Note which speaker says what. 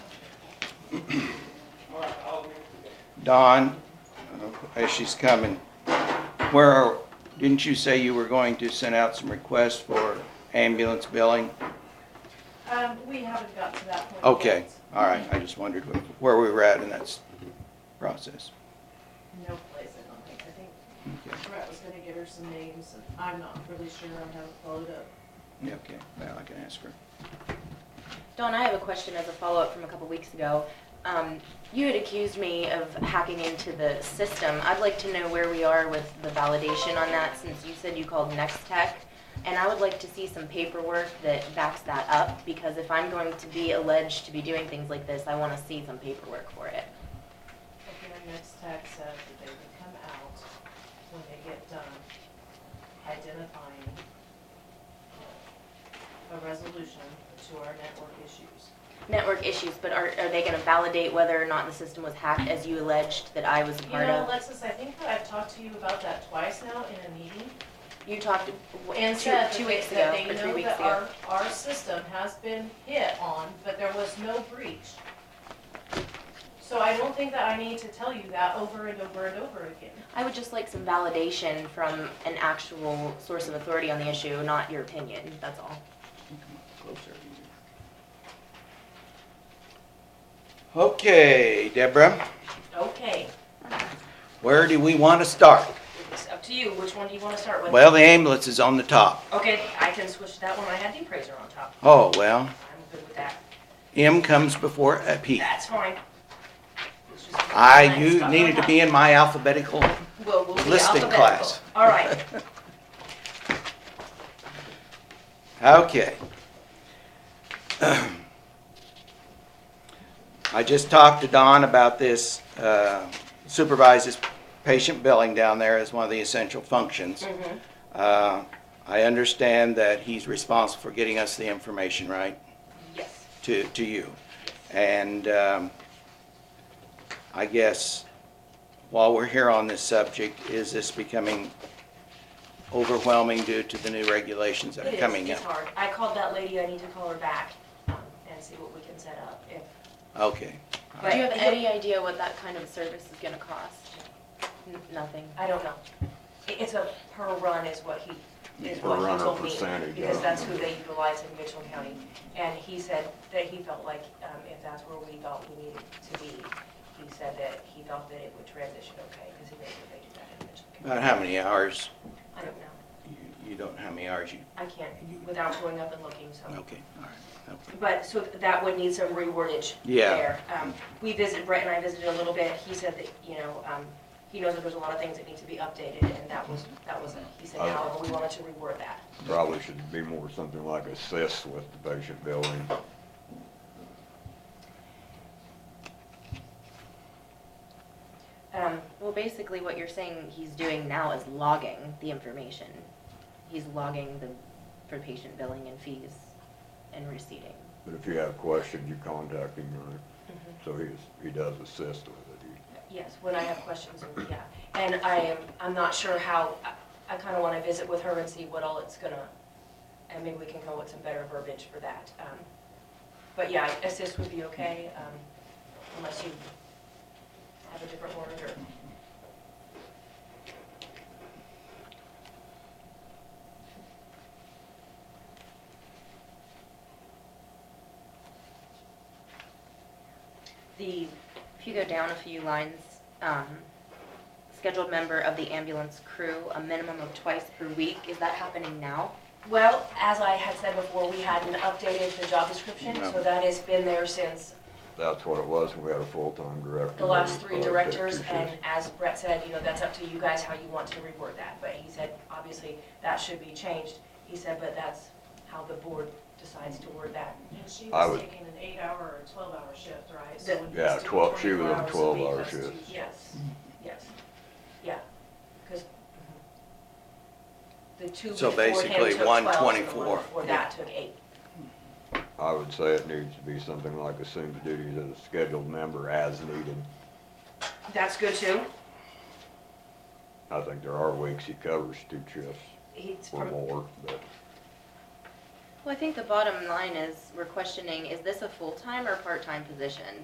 Speaker 1: Dawn, uh, as she's coming, where, are- didn't you say you were going to send out some requests for ambulance billing?
Speaker 2: Um, we haven't got to that point.
Speaker 1: Okay,
Speaker 2: yet.
Speaker 1: all right, I just wondered wh- where we were at in that s- process.
Speaker 2: No place, I don't think. I think
Speaker 1: Okay,
Speaker 2: Brett was gonna give her some names, and I'm not really sure. I haven't followed up.
Speaker 1: yeah, okay, well, I can ask her.
Speaker 3: Dawn, I have a question as a follow-up from a couple weeks ago. Um, you had accused me of hacking into the system. I'd like to know where we are with the validation on that, since you said you called Next Tech. And I would like to see some paperwork that backs that up, because if I'm going to be alleged to be doing things like this, I want to see some paperwork for it.
Speaker 2: Okay, our next tag says that they would come out when they get done identifying a resolution to our network issues.
Speaker 3: Network issues, but are, are they going to validate whether or not the system was hacked as you alleged that I was a
Speaker 2: You
Speaker 3: part
Speaker 2: know,
Speaker 3: of?
Speaker 2: Alexis, I think that I've talked to you about that twice now in a meeting.
Speaker 3: You talked
Speaker 2: And
Speaker 3: two,
Speaker 2: said
Speaker 3: two
Speaker 2: that
Speaker 3: weeks
Speaker 2: they- that
Speaker 3: ago,
Speaker 2: they
Speaker 3: or three
Speaker 2: know
Speaker 3: weeks
Speaker 2: that
Speaker 3: ago.
Speaker 2: Our, our system has been hit on, but there was no breach. So I don't think that I need to tell you that over and over and over again.
Speaker 3: I would just like some validation from an actual source of authority on the issue, not your opinion, that's all.
Speaker 1: Closer. Okay, Deborah,
Speaker 4: Okay,
Speaker 1: where do we want to start?
Speaker 4: it's up to you, which one do you wanna start with?
Speaker 1: Well, the ambulance is on the top.
Speaker 4: Okay, I can switch that one, I had the appraiser on top,
Speaker 1: Oh, well,
Speaker 4: I'm good with that,
Speaker 1: M comes before a P.
Speaker 4: that's fine. It's just-
Speaker 1: I,
Speaker 4: Mine's
Speaker 1: you
Speaker 4: stuck on
Speaker 1: needed to
Speaker 4: top.
Speaker 1: be in my alphabetical
Speaker 4: Well, we'll be
Speaker 1: listing
Speaker 4: alphabetical.
Speaker 1: class.
Speaker 4: All right,
Speaker 1: Okay. I just talked to Don about this uh, supervises patient billing down there as one of the essential functions. Uh, I understand that he's responsible for getting us the information, right,
Speaker 4: yes,
Speaker 1: to, to you. And um, I guess while we're here on this subject, is this becoming overwhelming due to the new regulations that
Speaker 4: it
Speaker 1: are
Speaker 4: is,
Speaker 1: coming
Speaker 4: it's
Speaker 1: up?
Speaker 4: hard, I called that lady, I need to call her back, um, and see what we can set up, if,
Speaker 1: Okay.
Speaker 4: but.
Speaker 3: Do you have any idea what that kind of service is gonna cost? N- Nothing.
Speaker 4: I don't know, It- it's a per run is what he, is
Speaker 5: Per
Speaker 4: what
Speaker 5: run
Speaker 4: he
Speaker 5: or
Speaker 4: told me,
Speaker 5: percentage, I
Speaker 4: because
Speaker 5: don't
Speaker 4: that's who
Speaker 5: know.
Speaker 4: they utilize in Mitchell County. And he said that he felt like, um, if that's where we thought we needed to be, he said that he thought that it would transition okay, because he knows that they do that in Mitchell County.
Speaker 1: About how many hours,
Speaker 4: I don't know,
Speaker 1: you- you don't, how many hours you,
Speaker 4: I can't, without going up and looking, so.
Speaker 1: okay, all right, okay.
Speaker 4: But, so that would need some rewordage
Speaker 1: Yeah.
Speaker 4: there. Um, We visited, Brett and I visited a little bit, he said that, you know, um, he knows that there's a lot of things that need to be updated, and that was, that was, it. he said,
Speaker 5: I-
Speaker 4: however, we wanted to reword that.
Speaker 5: Probably should be more something like assist with the patient billing.
Speaker 4: Um,
Speaker 3: Well, basically what you're saying he's doing now is logging the information. He's logging the, for patient billing and fees and receipting.
Speaker 5: But if you have questions, you contact him, right?
Speaker 4: Mm-hmm.
Speaker 5: So he's, he does assist with it. He-
Speaker 4: Yes, when I have questions, and- yeah. And I am, I'm not sure how, I- I kind of want to visit with her and see what all it's gonna, and maybe we can come up with some better verbiage for that. Um, But yeah, assist would be okay, um, unless you have a different word or.
Speaker 3: The, if you go down a few lines, um, scheduled member of the ambulance crew, a minimum of twice per week, is that happening now?
Speaker 4: Well, as I had said before, we hadn't updated the job description, so
Speaker 1: No.
Speaker 4: that has been there since
Speaker 5: That's what it was, when we had a full-time director.
Speaker 4: the last
Speaker 1: Mm-hmm. Oh,
Speaker 4: three
Speaker 5: It was like fifty
Speaker 4: directors,
Speaker 5: shifts.
Speaker 4: and as Brett said, you know, that's up to you guys how you want to reword that, but he said, obviously, that should be changed. He said, but that's how the board decides to word that.
Speaker 2: And she
Speaker 5: I
Speaker 2: was
Speaker 5: would-
Speaker 2: taking an eight-hour or twelve-hour shift, right?
Speaker 4: The-
Speaker 2: So when he
Speaker 5: Yeah,
Speaker 2: doing
Speaker 5: 12 she was
Speaker 2: 24
Speaker 5: on
Speaker 2: hours a
Speaker 5: 12
Speaker 2: week,
Speaker 5: hour
Speaker 2: that's two
Speaker 5: shifts.
Speaker 4: Yes, yes, yeah, because the two
Speaker 1: So
Speaker 4: before him took
Speaker 1: basically,
Speaker 4: 12,
Speaker 1: one
Speaker 4: and the
Speaker 1: 24.
Speaker 4: before that took eight.
Speaker 5: I would say it needs to be something like assumes duties as a scheduled member as needed.
Speaker 4: That's good too.
Speaker 5: I think there are weeks he covers two shifts
Speaker 4: He's
Speaker 5: or
Speaker 4: from,
Speaker 5: more, but
Speaker 3: Well, I think the bottom line is, we're questioning, is this a full-time or part-time position?